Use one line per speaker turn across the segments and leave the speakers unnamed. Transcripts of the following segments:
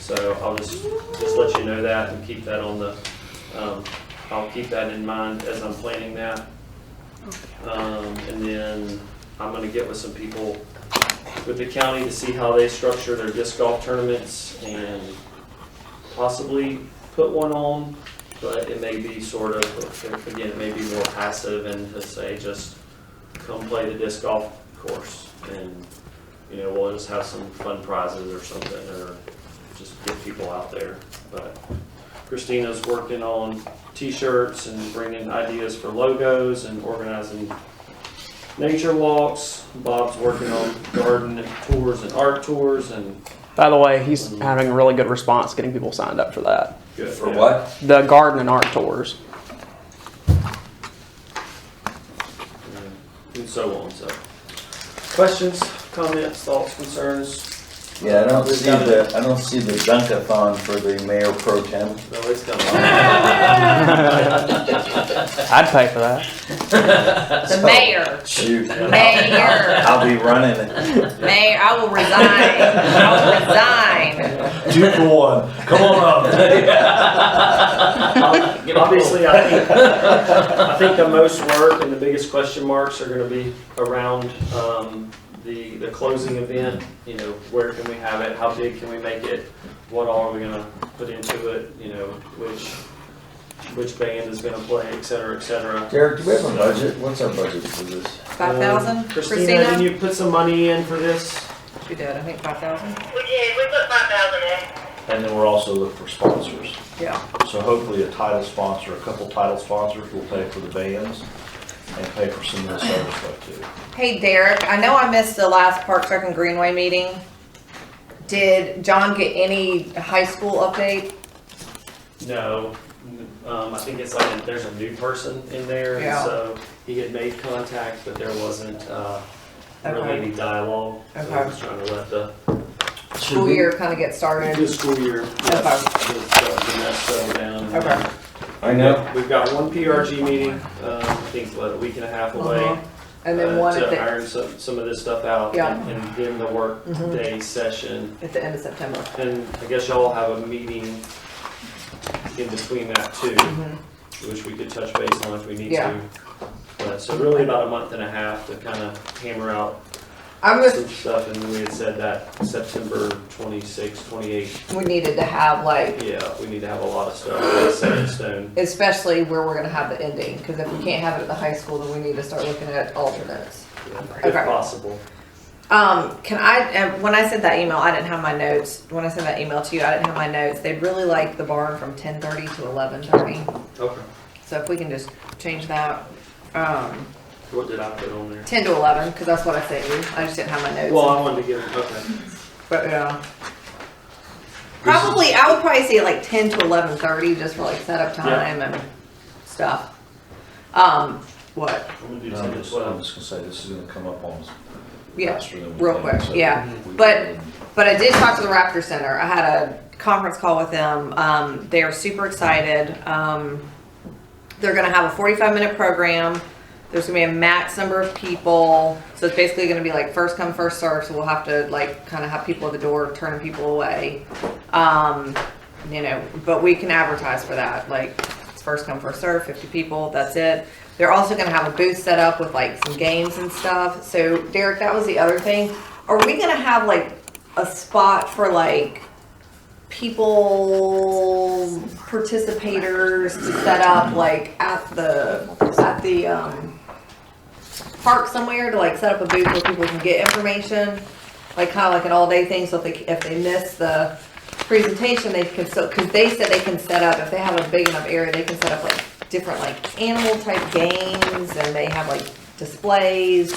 So I'll just, just let you know that and keep that on the, um, I'll keep that in mind as I'm planning that. Um, and then I'm gonna get with some people with the county to see how they structure their disc golf tournaments and possibly put one on, but it may be sort of, again, it may be more passive and to say just come play the disc golf course and, you know, we'll just have some fun prizes or something or just get people out there. But Christina's working on t-shirts and bringing ideas for logos and organizing nature walks. Bob's working on garden tours and art tours and.
By the way, he's having a really good response getting people signed up for that.
For what?
The garden and art tours.
And so on, so. Questions, comments, thoughts, concerns?
Yeah, I don't
We've
see
got
the, I don't see the dunkathon for the mayor pro tem.
No, it's coming.
I'd pay for that.
The mayor,
Shoot,
mayor,
I'll be running it.
mayor, I will resign, I will resign.
Two for one. Come on up.
Obviously, I think, I think the most work and the biggest question marks are gonna be around, um, the, the closing event. You know, where can we have it? How big can we make it? What all are we gonna put into it? You know, which, which band is gonna play, et cetera, et cetera.
Derek, do we have a budget? What's our budget for this?
Five thousand,
Um, Christina, did
Christina?
you put some money in for this?
She did, I think five thousand.
We did, we put five thousand in.
And then we're also looking for sponsors.
Yeah.
So hopefully a title sponsor, a couple title sponsors will pay for the bands and pay for some of the service stuff too.
Hey Derek, I know I missed the last Park Rec and Greenway meeting. Did John get any high school update?
No, um, I think it's like, there's a new person in there, and
Yeah.
so he had made contact, but there wasn't, uh, really
Okay.
any dialogue. So I
Okay.
was trying to let the, Mm-hmm.
School year kinda get
the
started?
school year, yes, just, uh, the mess settle down. and-
Okay.
I know.
We've got one PRG meeting, um, I think what, a week and a half away.
Uh-huh. And then
uh,
one at
To
the,
iron some, some of this stuff out.
Yeah.
And and then the work
Mhm.
day session.
at the end of September.
And I guess y'all have a meeting in between that too,
Mm-hmm.
which we could touch base on if we need
Yeah.
to. But, so really about a month and a half to kind of hammer out
I'm just
some stuff, and we had said that September 26, 28,
we needed to have like,
yeah, we need to have a lot of stuff set in stone.
especially where we're gonna have the ending, cause if we can't have it at the high school, then we need to start looking at alternates.
If
Okay.
possible.
Um, can I, um, when I sent that email, I didn't have my notes, when I sent that email to you, I didn't have my notes, they'd really like the barn from ten thirty to eleven thirty,
Okay.
so if we can just change that, um,
What did I put on there?
ten to eleven, cause that's what I sent you, I just didn't have my
Well,
notes,
I wanted to give, okay.
but, yeah. Probably, I would probably say like ten to eleven thirty, just for like setup
Yeah.
time and stuff. Um, what,
I'm gonna do
And I'm
10 as
just, I'm
well.
just gonna say this is gonna come up on us
yeah,
faster than we
real
think,
quick,
so
yeah.
we
But-
can-
But I did talk to the Raptor Center. I had a conference call with them. Um, they are super excited. Um, they're going to have a 45 minute program. There's going to be a max number of people. So it's basically going to be like first come, first serve. So we'll have to like kind of have people at the door turning people away. Um, you know, but we can advertise for that. Like it's first come, first serve, 50 people. That's it. They're also going to have a booth set up with like some games and stuff. So Derek, that was the other thing. Are we going to have like a spot for like people participators to set up like at the at the um park somewhere to like set up a booth where people can get information like kind of like an all-day thing so if they if they miss the presentation they can still because they said they can set up if they have a big enough area they can set up like different like animal type games and they have like displays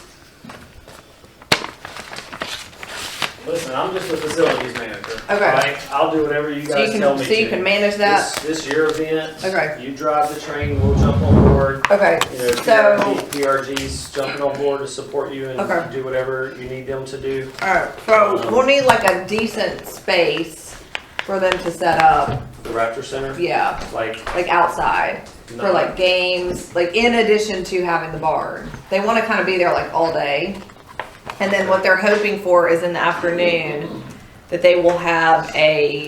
Listen, I'm just the facilities manager.
Okay.
right? I'll do whatever you
so you
guys
can
tell me to.
so you can manage
This,
that
this year event.
Okay.
You drive the train, we'll jump on board.
okay
You know,
so
PRG PRG's jumping on board to support you
Okay.
and do whatever you need them to do.
Alright, so we'll need like a decent space for them to set up,
The Raptor Center,
yeah,
like,
like outside, for
no,
like games, like in addition to having the barn. They wanna kinda be there like all day. And then what they're hoping for is in the afternoon, that they will have a